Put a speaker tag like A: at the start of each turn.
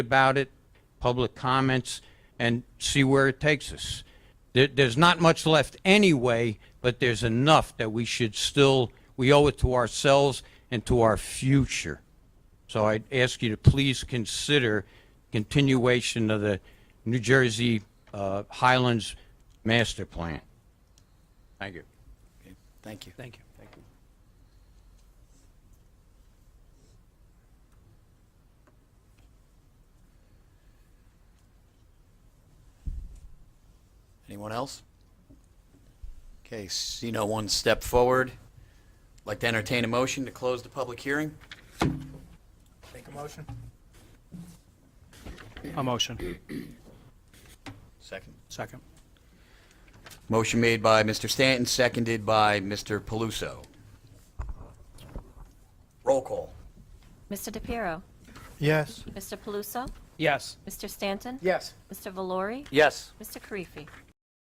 A: about it, public comments, and see where it takes us. There, there's not much left anyway, but there's enough that we should still, we owe it to ourselves and to our future. So I ask you to please consider continuation of the New Jersey uh, Highlands Master Plan. Thank you.
B: Thank you.
C: Thank you. Thank you.
B: Anyone else? Okay, see no one step forward. Like to entertain a motion to close the public hearing?
D: Make a motion.
C: A motion.
B: Second.
C: Second.
B: Motion made by Mr. Stanton, seconded by Mr. Paluso. Roll call.
E: Mr. DePiero,
D: Yes.
E: Mr. Paluso,
C: Yes.
E: Mr. Stanton?
D: Yes.
E: Mr. Valori?
B: Yes.
E: Mr. Karifi?